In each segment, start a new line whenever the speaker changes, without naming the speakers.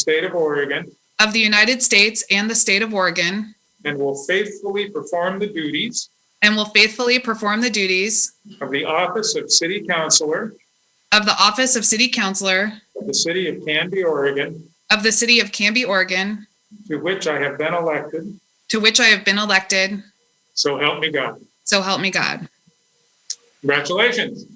State of Oregon
of the United States and the State of Oregon
and will faithfully perform the duties
and will faithfully perform the duties
of the office of City Councilor
of the Office of City Councilor
of the City of Canby, Oregon,
of the City of Canby, Oregon,
to which I have been elected.
to which I have been elected.
So help me God.
So help me God.
Congratulations.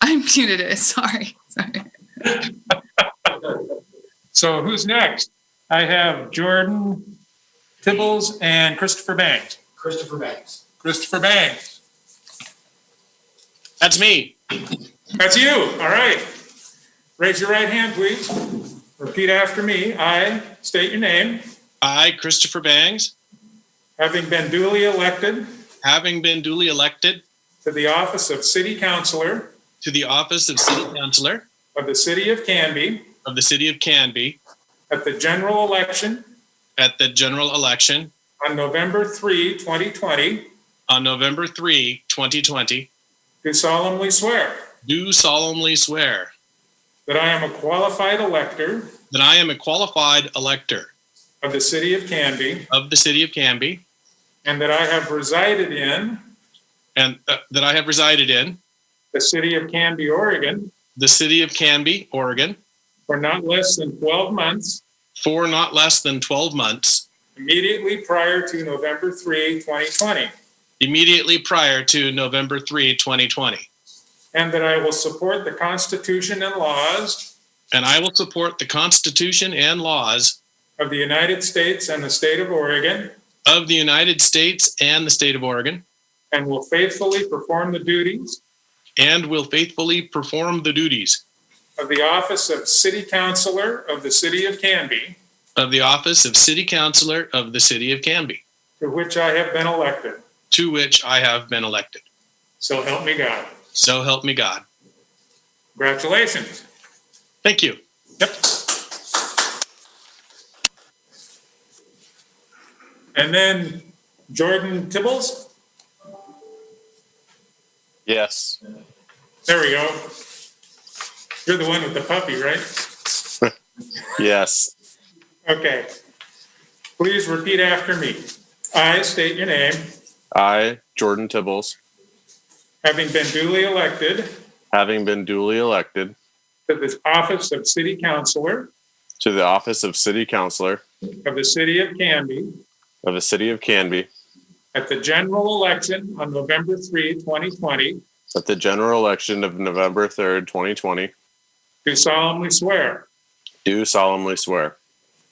I'm muted. it. Sorry. Sorry.
So who's next? I have Jordan Tibbles and Christopher Banks.
Christopher Banks.
Christopher Banks,
That's me.
that's you. All right. Raise your right hand, please. Repeat after me. I state your name,
I, Christopher Bangs,
having been duly elected
having been duly elected
to the office of City Councilor
to the office of City Councilor
of the City of Canby
of the City of Canby
at the general election
at the general election
on November 3, 2020,
on November 3, 2020,
do solemnly swear
do solemnly swear
that I am a qualified elector
that I am a qualified elector
of the City of Canby
of the City of Canby
and that I have resided in
and uh, that I have resided in
the City of Canby, Oregon
the City of Canby, Oregon,
for not less than 12 months
for not less than 12 months
immediately prior to November 3, 2020,
immediately prior to November 3, 2020.
and that I will support the Constitution and laws
And I will support the Constitution and laws
of the United States and the state of Oregon
of the United States and the State of Oregon,
and will faithfully perform the duties
and will faithfully perform the duties
of the office of City Councilor of the City of Canby,
of the office of City Councilor of the City of Canby,
to which I have been elected.
to which I have been elected.
So help me God.
So help me God.
Congratulations.
Thank you.
And then Jordan Tibbles?
Yes.
There we go. You're the one with the puppy, right?
Yes.
Okay. Please repeat after me. I state your name,
I, Jordan Tibbles,
having been duly elected
having been duly elected
to the office of City Councilor
to the office of City Councilor
of the City of Canby
of the City of Canby
at the general election on November 3, 2020,
at the general election of November 3rd, 2020,
do solemnly swear
do solemnly swear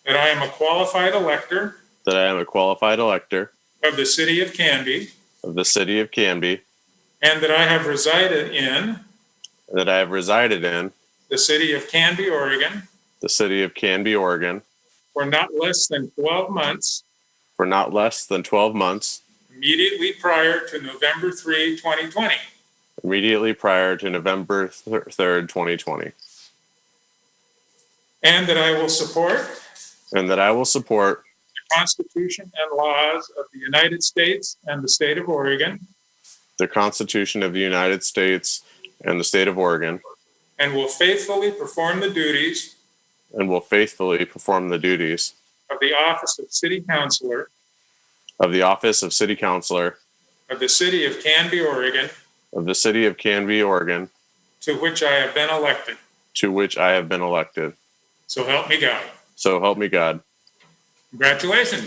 that I am a qualified elector
that I am a qualified elector
of the City of Canby
of the City of Canby,
and that I have resided in
and that I have resided in
the City of Canby, Oregon
the City of Canby, Oregon,
for not less than 12 months
for not less than 12 months
immediately prior to November 3, 2020.
immediately prior to November 3rd, 2020,
And that I will support
and that I will support
the Constitution and laws of the United States and the state of Oregon,
the Constitution of the United States and the State of Oregon,
and will faithfully perform the duties
and will faithfully perform the duties
of the office of City Councilor
of the office of City Councilor
of the city of Canby, Oregon,
of the City of Canby, Oregon,
to which I have been elected.
to which I have been elected.
So help me God.
So help me God.
Congratulations.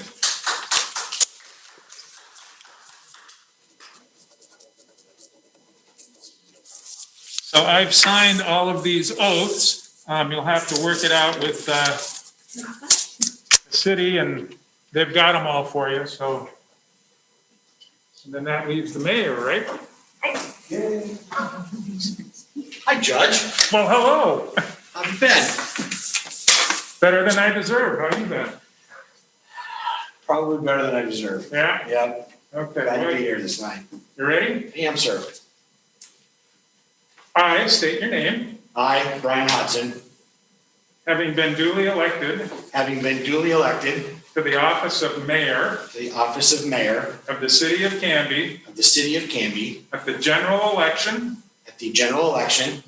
So I've signed all of these oaths. Um, You'll have to work it out with uh, the city, and they've got them all for you, so. And then that leaves the mayor, right?
Hi, Judge.
Well, hello.
I'm Ben.
Better than I deserve, how you been?
Probably better than I deserve.
Yeah,
Yeah, glad to be
okay.
here this night.
You ready?
Ham sir.
I state your name,
I, Brian Hudson,
having been duly elected
having been duly elected
to the office of mayor
to the office of mayor
of the city of Canby
of the city of Canby
at the general election
at the general election